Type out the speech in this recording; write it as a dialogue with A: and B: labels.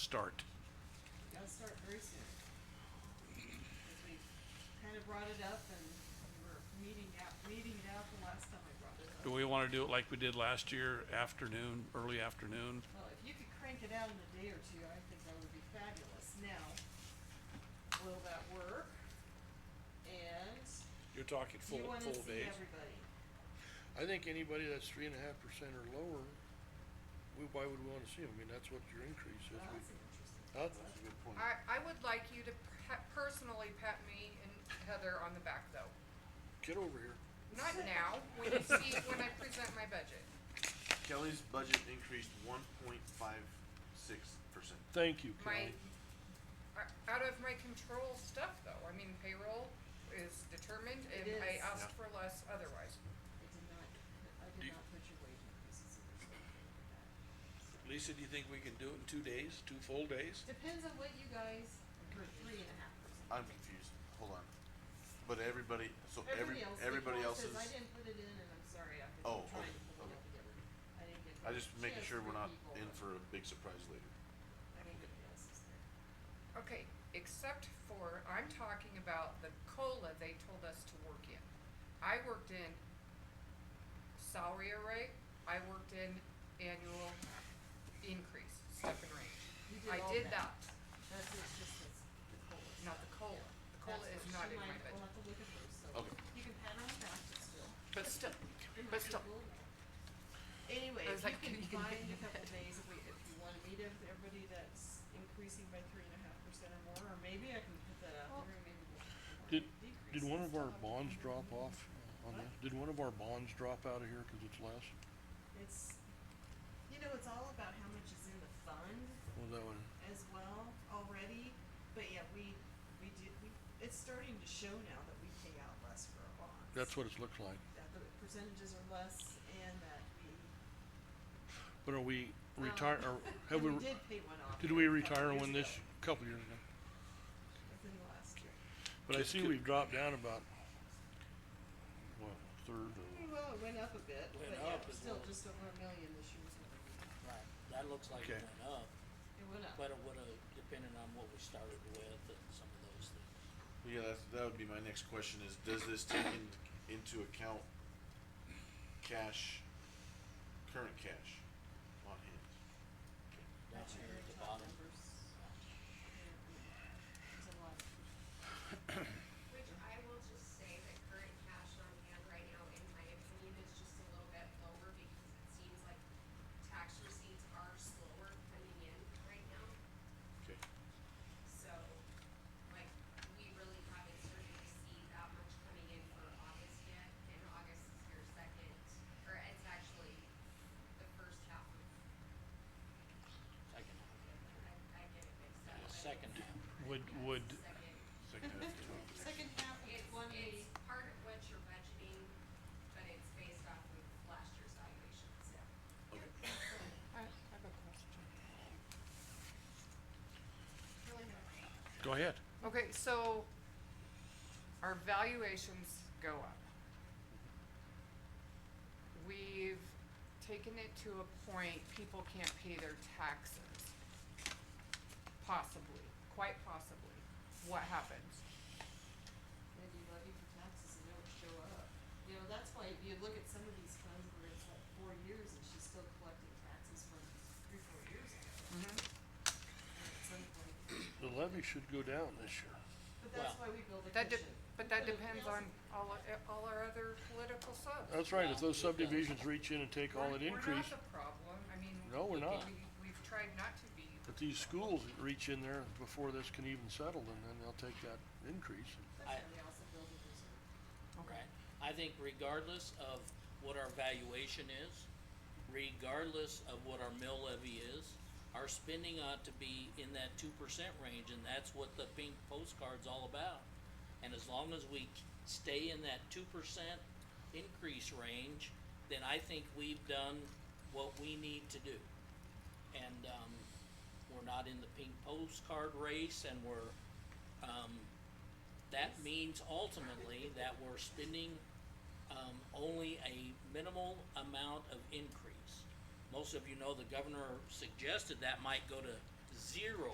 A: start.
B: That'll start very soon. As we kind of brought it up and we were meeting out, meeting it out the last time I brought it
A: Do
B: up.
A: we wanna do it like we did last year, afternoon, early afternoon?
B: Well, if you could crank it out in a day or two, I think that would be fabulous. Now, will that work? And
C: You're talking
B: you
C: full,
B: wanna
C: full
B: see
C: days.
B: everybody.
D: I think anybody that's three and a half percent or lower, we, why would we wanna see them? I mean, that's what your increase is.
B: Well,
D: We-
B: That's an interesting
D: Huh? That's a
B: concept.
D: good point.
E: I, I would like you to pat, personally pat me and Heather on the back though.
D: Get over here.
E: Not now, when you see, when I present my budget.
F: Kelly's budget increased one point five six percent.
D: Thank you,
E: My,
D: Kelly.
E: o- out of my control stuff though, I mean payroll is determined
B: It
E: and I
B: is.
E: asked
F: Yeah.
E: for less otherwise.
B: I did not,
C: Do
B: I did
C: you-
B: not put your wage increases in there, so I can't do that. So-
C: Lisa, do you think we can do it in two days, two full days?
B: Depends on what you guys, for three and a half percent.
F: I'm confused. Hold on. But everybody, so every,
B: Everybody else,
F: everybody
B: Nicole
F: else
B: says
F: is,
B: I didn't put it in and I'm sorry, I've been
F: Oh,
B: trying
F: okay,
B: to pull it up together. I didn't get.
F: I just
B: she has
F: making sure we're
B: three
F: not
B: people,
F: in
B: but
F: for a big surprise later.
B: I think everybody else is there.
E: Okay, except for, I'm talking about the COLA they told us to work in. I worked in salary array, I worked in annual increase, step and range.
B: You
E: I
B: all
E: did that,
B: That's it's just this, the cola.
E: not the COLA. The COLA is not in my
B: We'll
E: budget.
B: have to look at hers, so
F: Okay.
B: you can pat her on the back, but still.
E: But still,
B: it
E: but
B: might be
E: still,
B: a little- Anyway,
E: I
B: if
E: was
B: you
E: like,
B: can
E: you can
B: find
E: do
B: a couple
E: that.
B: days, if we, if you wanna meet ev- everybody that's increasing by three and a half percent or more, or maybe I can put that out
E: Well-
B: there, and maybe we'll.
D: Did, did
B: decreases.
D: one of our bonds
B: Mm-hmm.
D: drop off on that? Did one of our bonds drop out of here 'cause it's less?
B: It's, you know, it's all about how much is in the fund
D: Well, that one,
B: as well already, but yeah, we, we do, we, it's starting to show now that we pay out less for our bonds.
D: that's what it looks like.
B: That the percentages are less and that we.
D: But are we
B: well,
D: retire, or have
B: and
D: we,
B: we
D: re-
B: did pay one off.
D: did
B: here a
D: we
B: couple
D: retire
B: years
D: one this,
B: ago,
D: couple years ago?
B: Within the last year.
D: But I
A: Could-
D: see
A: could-
D: we've dropped down about, what, a third or?
B: Well, it went up a bit, but
G: Went
B: yeah,
G: up as
B: still
G: well.
B: just over a million this year. is what we did.
G: Right, that looks like
D: Okay.
G: it went up,
B: It went up.
G: but it would've, depending on what we started with and some of those things.
F: Yeah, that's, that would be my next question is, does this take in, into account cash, current cash on hand?
G: Down
B: That's your
G: here
B: very
G: at the
B: top
G: bottom,
B: numbers. There's a lot.
H: Which I will just say that current cash on hand right now, in my opinion, is just a little bit lower because it seems like tax receipts are slower coming in right now.
F: Okay,
H: So, like, we really haven't started to see that much coming in for August yet, and August is your second, or it's actually the first half of,
G: second half,
H: I, I get it mixed up.
G: the
H: but
G: second half.
A: Would,
H: it's
A: would,
H: the
F: second half of
H: Second.
F: twelve.
B: Second half of
H: It's,
B: twenty.
H: it's part of what you're budgeting, but it's based off of last year's valuations.
A: go ahead.
E: okay, so our valuations go up. We've taken it to a point people can't pay their taxes. Possibly, quite possibly. What happens?
B: Then you levy for taxes and don't show up. You know, that's why if you look at some of these funds where it's like four years and she's still collecting taxes from three, four years ago. And at some point,
D: The levy should go down this year.
B: but that's why
G: Well,
B: we build a
E: That de-
B: cushion.
E: but that
B: But it
E: depends
B: feels-
E: on all, o- all our other political subs.
D: That's right, if
G: Well,
D: those
G: it does.
D: subdivisions reach in and take all
E: We're-
D: that increase,
E: We're not the problem, I mean.
D: No, we're
E: we-
D: not.
E: we- We've tried not to be,
D: but these schools that reach in there before this can even settle, and then they'll take that increase.
B: That's
G: I-
B: why we also build a reserve.
G: right? I think regardless of what our valuation is, regardless of what our mill levy is, our spending ought to be in that two percent range, and that's what the pink postcard's all about. And as long as we stay in that two percent increase range, then I think we've done what we need to do. And, um, we're not in the pink postcard race, and we're, um, that means ultimately that we're spending um, only a minimal amount of increase. Most of you know the governor suggested that might go to zero